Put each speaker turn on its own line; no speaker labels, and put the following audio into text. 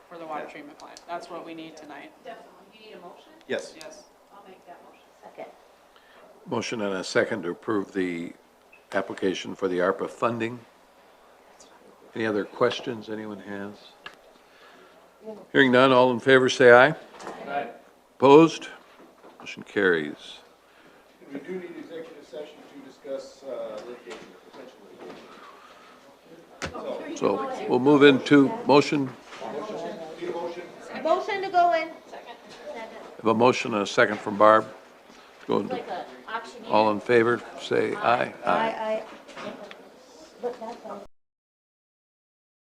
water
Yeah.
treatment plant. That's what we need tonight,
Definitely, you need a motion?
Yes.
yes.
I'll make that motion.
Second.
Motion and a second to approve the application for the ARPA funding. Any other questions anyone has? Hearing none, all in favor, say aye. Aye. Opposed? Motion carries.
We do need executive session to discuss uh, litigation, potential litigation.
So we'll move into motion,
Need a motion?
Motion to go in.
have a motion and a second from Barb. Go, into-
Like a auctioneer.
all in favor, say aye.
I, I. But that's all.